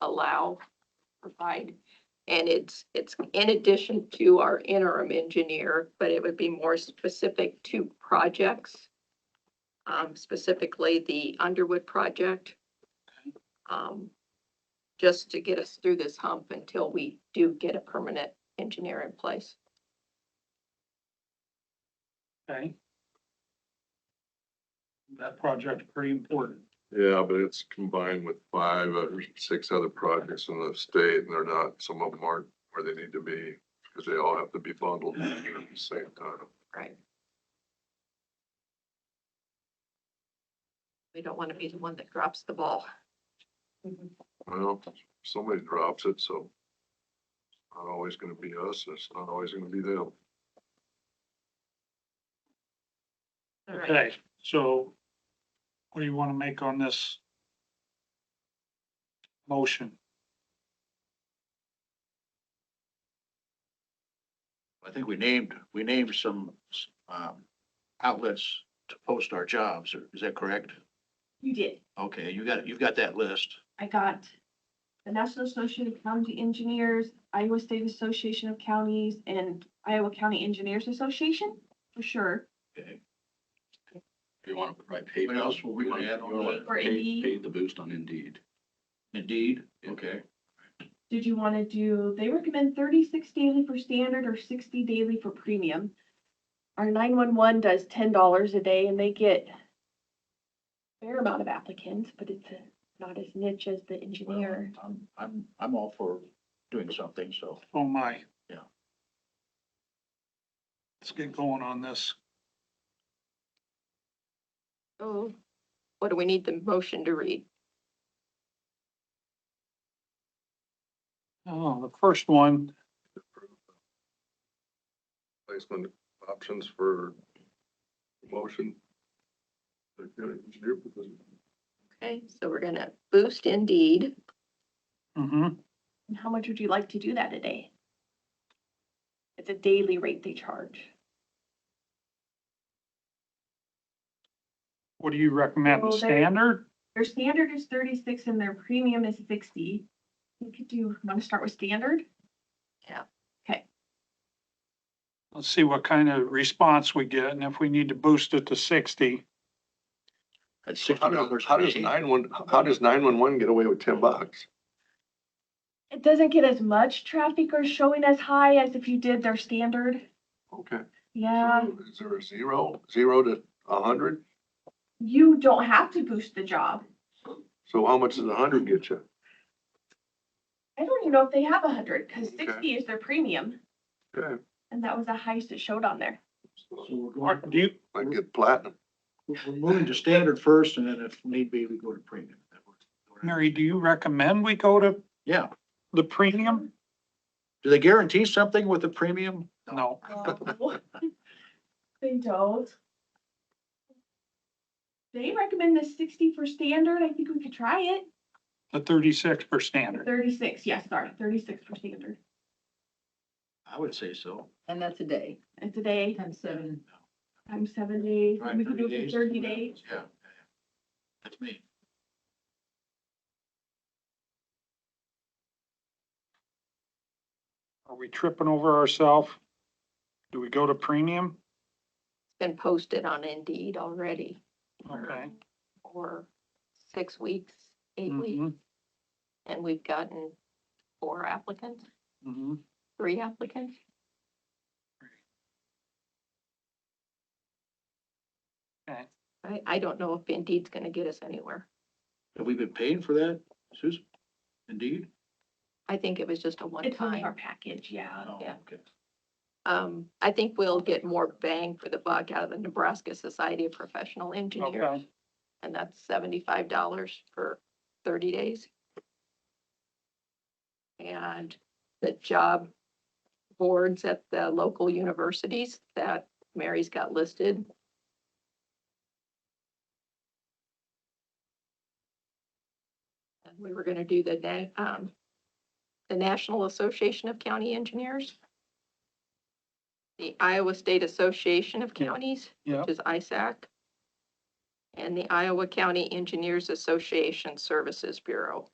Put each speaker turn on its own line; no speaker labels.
allow, provide. And it's, it's in addition to our interim engineer, but it would be more specific to projects. Um, specifically the Underwood project. Um, just to get us through this hump until we do get a permanent engineer in place.
Okay. That project's pretty important.
Yeah, but it's combined with five or six other projects in the state and they're not, some of them aren't where they need to be because they all have to be bundled together at the same time.
Right. We don't want to be the one that drops the ball.
Well, somebody drops it, so it's not always gonna be us, it's not always gonna be them.
All right.
Okay, so what do you want to make on this? Motion,
I think we named, we named some, um, outlets to post our jobs, or is that correct?
You did.
Okay, you got, you've got that list.
I got the National Association of County Engineers, Iowa State Association of Counties, and Iowa County Engineers Association, for sure.
Okay. You want to provide pay.
What else will we wanna add on to that?
Or Indeed.
Pay the boost on Indeed.
Indeed, okay.
Did you want to do, they recommend thirty-six daily for standard or sixty daily for premium. Our nine-one-one does ten dollars a day and they get a fair amount of applicants, but it's uh, not as niche as the
Well,
engineer.
I'm, I'm, I'm all for doing something, so.
oh my.
Yeah.
Let's get going on this.
So Oh. what do we need the motion to read?
Oh, the first one,
Placement options for motion.
Okay, so we're gonna boost Indeed.
hmm
And how much would you like to do that a day? It's a daily rate they charge.
what do you recommend, the
Well, there-
standard?
Their standard is thirty-six and their premium is sixty. You could do, want to start with standard?
Let's see what kind of response we get and if we need to boost it to sixty.
That's
How
sixty
does,
dollars.
how does nine one, how does nine one one get away with ten bucks?
It doesn't get as much traffic or showing as high as if you did their standard. Um,
Okay.
Yeah,
Is there a zero, zero to a hundred?
you don't have to boost the job.
So how much does a hundred get you?
I don't even know if they have a hundred because
Okay.
sixty is their premium
Okay,
and that was the highest it showed on there.
So we're
Or
going,
do you,
I get platinum.
we're we're moving to standard first, and then if need be, we go to premium.
Mary, do you recommend we go to
Yeah,
the premium?
do they guarantee something with the premium?
No,
No, They don't. They recommend the sixty for standard. I think we could try it.
the thirty-six per standard.
Thirty-six, yes, sorry, thirty-six for standard.
I would say so.
And that's a day,
It's a day,
times seven.
times seven days,
Right,
we could do
30
it
days.
for thirty days.
Yeah. That's me.
Are we tripping over ourselves? Do we go to premium?
It's been posted on Indeed already
Okay.
for six weeks, eight weeks,
Mhm,
and we've gotten four applicants,
mhm.
three applicants.
Okay.
I, I don't know if Indeed's gonna get us anywhere.
Have we been paying for that, Susan? Indeed?
I think it was just a
It's on our
one-time.
package, yeah.
Oh,
Yeah.
okay.
Um, I think we'll get more bang for the buck out of the Nebraska Society of Professional Engineers.
Okay.
And that's seventy-five dollars for thirty days. And the job boards at the local universities that Mary's got listed. And we were gonna do the, na- um, the National Association of County Engineers. The Iowa State Association of
Yeah.
Counties
Yeah,
which is ISAC, and the Iowa County Engineers Association Services Bureau.